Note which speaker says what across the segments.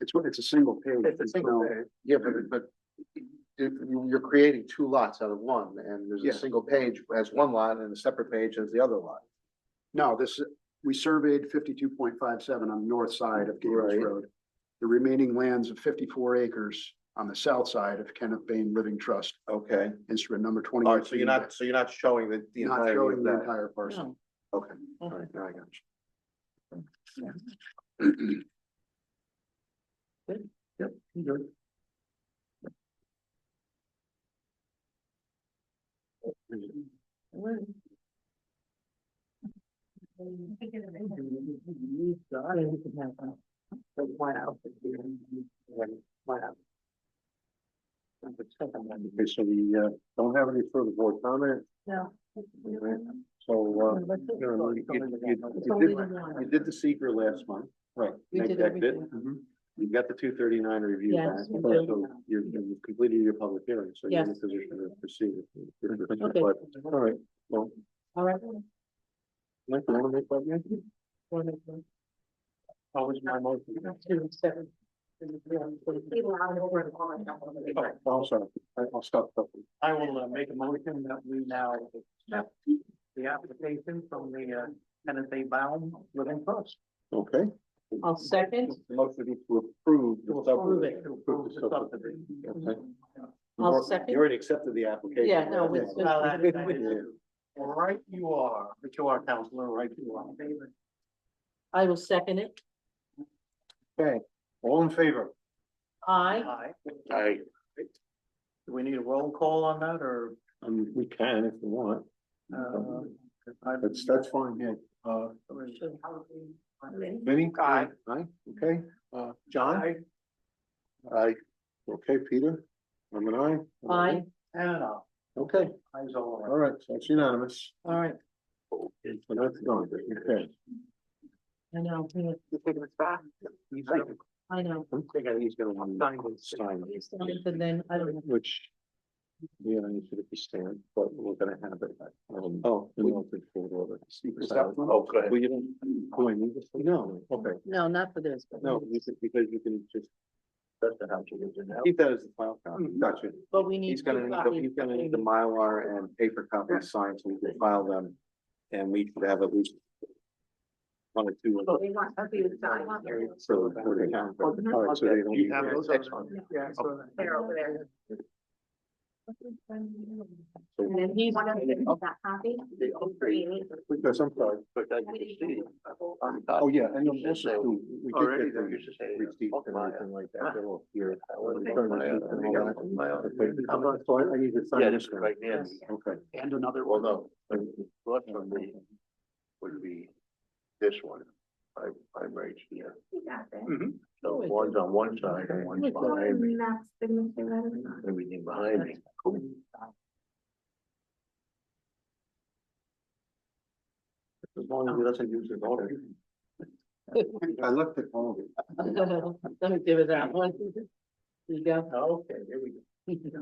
Speaker 1: It's, it's a single page.
Speaker 2: It's a
Speaker 1: there's
Speaker 2: single
Speaker 1: no-
Speaker 2: page.
Speaker 3: Yeah, but, but if you, you're creating two lots out of one, and there's
Speaker 1: Yeah.
Speaker 3: a single page as one lot and a separate page as the other lot.
Speaker 1: No, this, we surveyed fifty-two point five seven on the north side of Gables
Speaker 3: Right.
Speaker 1: Road. The remaining lands of fifty-four acres on the south side of Kenneth Bain Living Trust,
Speaker 3: Okay,
Speaker 1: instrument number
Speaker 3: all
Speaker 1: twenty-eight.
Speaker 3: right, so you're not, so you're not showing the, the
Speaker 1: Not
Speaker 3: entirety
Speaker 1: showing
Speaker 3: of
Speaker 1: the
Speaker 3: that,
Speaker 1: entire parcel.
Speaker 3: okay, all right, now I got you. Yep, you good. Okay, so we, uh, don't have any further board comment,
Speaker 2: No.
Speaker 3: so, uh,
Speaker 2: Let's
Speaker 3: you
Speaker 2: just
Speaker 3: know,
Speaker 2: go
Speaker 3: you- you-
Speaker 2: somewhere to
Speaker 3: you
Speaker 2: that.
Speaker 3: did-
Speaker 2: It's only the one.
Speaker 3: you did the seeker last month, right?
Speaker 2: We did
Speaker 3: that bit.
Speaker 2: everything.
Speaker 1: Mhm.
Speaker 3: You've got the two thirty-nine review
Speaker 2: Yes,
Speaker 3: back,
Speaker 2: we
Speaker 3: so
Speaker 2: do.
Speaker 3: you're- you've completed your public hearing, so you're in a
Speaker 2: Yes.
Speaker 3: position to proceed.
Speaker 2: Okay.
Speaker 3: But, All right, well,
Speaker 2: All right.
Speaker 3: Mike, you wanna make that motion?
Speaker 2: Wonderful.
Speaker 3: That was my motion.
Speaker 2: Two, seven. People are on over the corner.
Speaker 3: Oh, I'm sorry, I- I'll stop.
Speaker 4: I will uh, make a motion that we now accept the application from the uh, Kenneth A. Baum Living Trust.
Speaker 3: Okay.
Speaker 2: I'll second.
Speaker 3: The Motion is to approve
Speaker 4: To
Speaker 3: the
Speaker 4: approve
Speaker 3: subdivision.
Speaker 4: it, to approve the subdivision.
Speaker 3: Okay.
Speaker 2: I'll
Speaker 3: You've al-
Speaker 2: second.
Speaker 3: You already accepted the application.
Speaker 2: Yeah, no, uh,
Speaker 3: right?
Speaker 2: it's-
Speaker 4: Well, that is- that
Speaker 3: Yeah.
Speaker 4: is- Right you are, but you are counselor, right you are.
Speaker 2: I will second it.
Speaker 3: All in favor?
Speaker 2: I,
Speaker 4: Aye.
Speaker 3: Aye.
Speaker 4: Do we need a roll call on that or?
Speaker 3: Um, we can if you want.
Speaker 4: uh, I-
Speaker 3: That's, that's fine, yeah. Uh, Vinnie?
Speaker 4: Aye.
Speaker 3: Aye, okay. Uh, John? Aye. Okay, Peter? I'm an aye. I'm an
Speaker 2: I,
Speaker 4: And an aye.
Speaker 3: Okay,
Speaker 4: Ayes all
Speaker 3: all
Speaker 4: around.
Speaker 3: right, so it's unanimous.
Speaker 2: all right,
Speaker 3: So that's going, okay.
Speaker 2: I know,
Speaker 4: He's gonna
Speaker 2: I know.
Speaker 3: I'm thinking he's gonna want
Speaker 4: sign this.
Speaker 3: sign it,
Speaker 2: And then, I don't know,
Speaker 3: which we don't need to be stand, but we're gonna have it. um, Oh. we don't think we'll do it.
Speaker 1: Is that one?
Speaker 3: Oh, good. Well, you don't, do I need this? No, okay.
Speaker 2: no, not for this. but-
Speaker 3: No, this is because you can just. That's the house you live in now. Keep that as the file copy. Gotcha.
Speaker 2: But we need.
Speaker 3: He's gonna,
Speaker 2: two
Speaker 3: need the- he's gonna need the Mylar and paper copies signed so we can file them. And we should have at least. One or two. of them.
Speaker 2: They want, I think it's time.
Speaker 3: So. for the count. Oh, All right, so they don't
Speaker 4: You have
Speaker 3: need-
Speaker 4: those?
Speaker 3: Excellent.
Speaker 4: Yeah. so-
Speaker 5: They're over there.
Speaker 2: And then he's.
Speaker 5: One of them is that copy. Create.
Speaker 3: Because I'm sorry. Oh, yeah, and you'll also do. we did get
Speaker 4: Already, they
Speaker 3: the
Speaker 4: used to say, uh,
Speaker 3: receipts and
Speaker 4: Mylar.
Speaker 3: everything like that, they're all here.
Speaker 4: wasn't
Speaker 3: Return
Speaker 4: my, uh,
Speaker 3: receipts and all that.
Speaker 4: Mylar.
Speaker 3: Okay, I'm not- So I I need to sign
Speaker 4: Yeah,
Speaker 3: this.
Speaker 4: just
Speaker 3: one.
Speaker 4: right there.
Speaker 3: Okay.
Speaker 4: And another.
Speaker 3: Well,
Speaker 4: one.
Speaker 3: no.
Speaker 4: Left from me would be this one, I, I'm right here.
Speaker 5: You got it.
Speaker 4: So one's on one side and one's behind me,
Speaker 5: And that's signature letter.
Speaker 4: everything behind me. As long as he doesn't use his order.
Speaker 3: I left it home.
Speaker 2: Let me give it that one. There you go.
Speaker 4: Okay, there we go.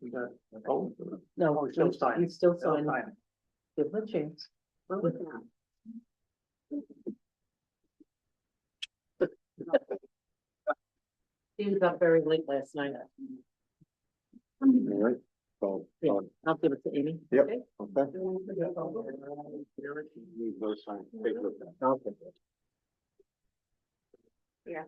Speaker 4: We got, oh,
Speaker 2: No,
Speaker 4: Oh,
Speaker 2: he's
Speaker 4: still signing.
Speaker 2: he's still
Speaker 4: so
Speaker 2: signing.
Speaker 4: fine.
Speaker 2: Give him a chance. He was up very late last night.
Speaker 3: All right. So,
Speaker 2: Yeah.
Speaker 3: uh,
Speaker 2: I'll give it to Amy.
Speaker 3: Yep.
Speaker 2: Okay?
Speaker 3: okay. Need those signed. Take a look at it.
Speaker 5: Yeah.